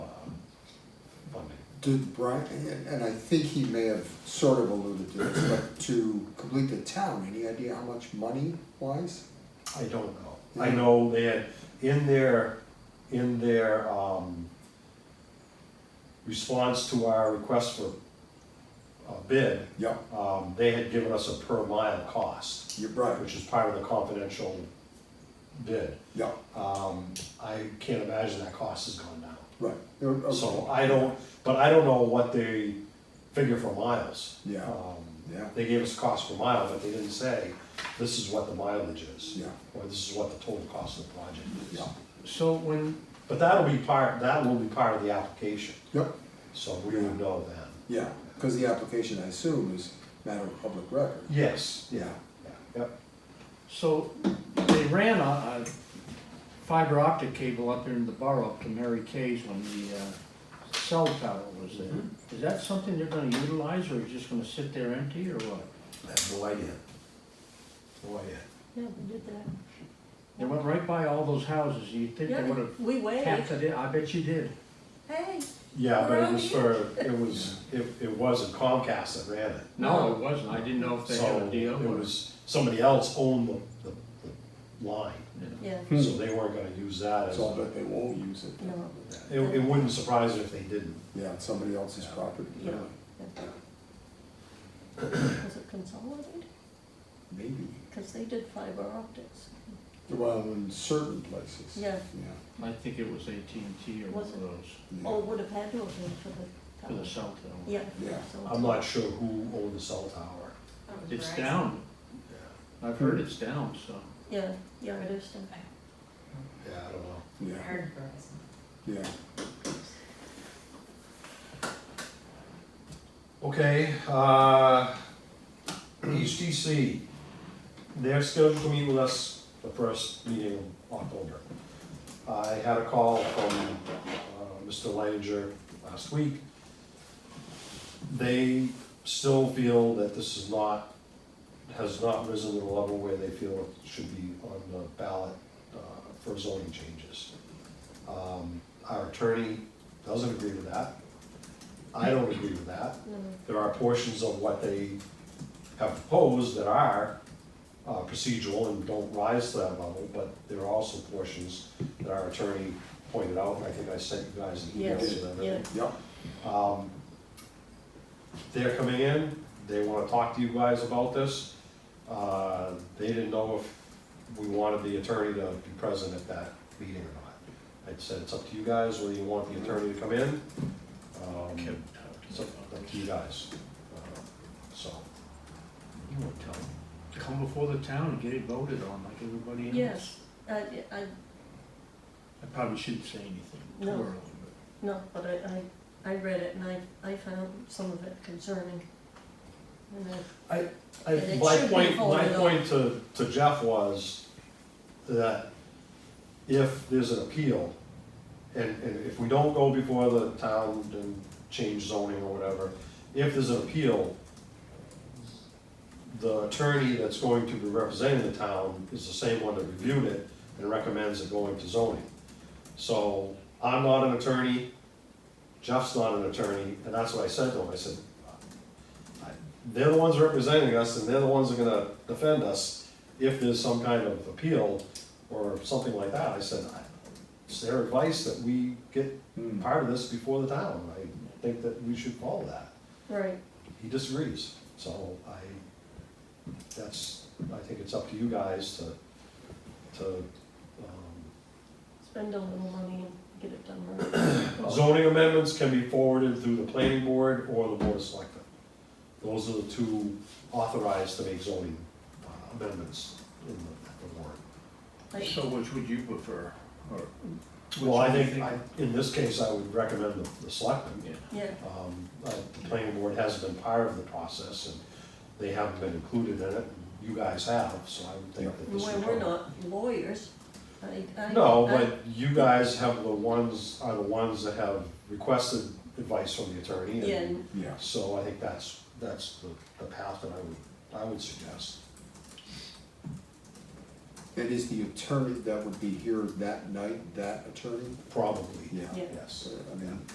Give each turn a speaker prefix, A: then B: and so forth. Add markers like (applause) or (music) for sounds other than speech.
A: Did Brian, and- and I think he may have sort of alluded to this, but to complete the town, any idea how much money wise?
B: I don't know. I know they had, in their, in their, um, response to our request for a bid,
A: Yep,
B: um, they had given us a per mile cost,
A: you're right,
B: which is part of the confidential bid.
A: yep,
B: Um, I can't imagine that cost has gone down.
A: right. You're- okay.
B: So I don't, but I don't know what they figure for miles.
A: Yeah.
B: Um,
A: Yeah,
B: They gave us cost per mile, but they didn't say, this is what the mileage is.
A: yeah,
B: or this is what the total cost of the project is.
A: yeah,
C: So when,
B: But that'll be part, that will be part of the application,
A: yep,
B: so we would know then.
A: yeah, because the application, I assume, is matter of public record.
B: Yes.
A: Yeah,
B: Yeah, Yep,
C: so they ran a, a fiber optic cable up in the borough up to Mary Kay's when the, uh, cell tower was there. Is that something they're gonna utilize or is it just gonna sit there empty or what?
B: I have no idea. No idea.
D: Yeah, we did that.
C: They went right by all those houses. You'd think they
D: Yeah,
C: would've
D: we
C: tapped it
D: waved.
C: in. I bet you did.
D: Hey,
B: Yeah, but it
D: Well,
B: was (laughs) for, it was, it, it wasn't Comcast that ran it.
C: No, it wasn't. I didn't know if they had
B: So
C: a deal.
B: it
C: or-
B: was, somebody else owned the, the, the line,
D: yeah,
B: so they weren't gonna use that as,
A: so I
B: a-
A: bet they won't use it.
D: no,
B: it, it wouldn't surprise me if they didn't.
A: Yeah, it's somebody else's
B: Yeah.
A: property,
D: Yeah.
A: really.
D: was it consolidated?
A: maybe,
D: Because they did fiber optics.
A: well, in certain places.
D: Yeah,
A: Yeah.
C: I think it was AT&T or one
D: Was
C: of
D: it?
C: those
D: or would have had to have been for the
C: for the
D: tower.
C: cell tower.
D: Yeah.
A: Yeah.
D: so-
B: I'm not sure who owned the cell tower.
C: It's down. I've heard it's down, so.
D: Yeah, yeah, it is down.
B: Yeah, I don't know.
A: Yeah, yeah,
E: Heard Verizon.
A: yeah.
B: Okay, uh, HDC, they're scheduled to meet with us the first meeting in October. I had a call from uh, Mr. Leininger last week. They still feel that this is not, has not risen to the level where they feel it should be on the ballot uh, for zoning changes. Um, Our attorney doesn't agree with that. I don't agree with that
D: No,
B: there are portions of what they have proposed that are uh, procedural and don't rise to that level, but there are also portions that our attorney pointed out, and I think I sent you guys an email
D: Yes,
B: to them.
D: yeah.
A: Yep,
B: Um, They're coming in, they wanna talk to you guys about this. Uh, They didn't know if we wanted the attorney to be present at that meeting or not. I said, it's up to you guys, whether you want the attorney to come in. Um, It's up up to you guys. Uh, So,
C: You won't tell them. Come before the town and get it voted on like everybody else.
D: Yes, I, I,
C: I probably shouldn't say anything too
D: No.
C: early,
D: no, but I, I, I read it and I, I found some of it concerning. And I
B: I,
D: And it
B: my
D: should be
B: point, my
D: folded up.
B: point to, to Jeff was that if there's an appeal, and, and if we don't go before the town and change zoning or whatever, if there's an appeal, the attorney that's going to be representing the town is the same one that reviewed it and recommends it going to zoning. So I'm not an attorney, Jeff's not an attorney, and that's what I said to him, I said, I- they're the ones representing us and they're the ones that are gonna defend us if there's some kind of appeal or something like that. I said, I- it's their advice that we get
A: Hmm.
B: part of this before the town. I think that we should follow that.
D: Right,
B: He disagrees, so I, that's, I think it's up to you guys to, to, um,
D: spend a little money and get it done right.
B: Zoning amendments can be forwarded through the planning board or the board of selectmen. Those are the two authorized to make zoning uh, amendments in the the warrant.
C: but.
D: I-
C: So which would you prefer? Or which
B: Well, I
C: one do you
B: think, I- in this case, I would recommend the- the selectmen.
C: Yeah.
D: Yeah,
B: Um, uh, The planning board hasn't been part of the process, and they haven't been included in it, and you guys have, so I would think that this
D: well,
B: would
D: we're
B: come.
D: not lawyers, I, I.
B: No,
D: I-
B: but you guys have the ones, are the ones that have requested advice from the attorney. and-
D: Yeah, and
A: yeah.
B: So I think that's, that's the, the path that I would, I would suggest.
A: And is the attorney that would be here that night, that attorney?
B: Probably,
A: Yeah.
D: Yeah.
B: yes.
A: So, I mean,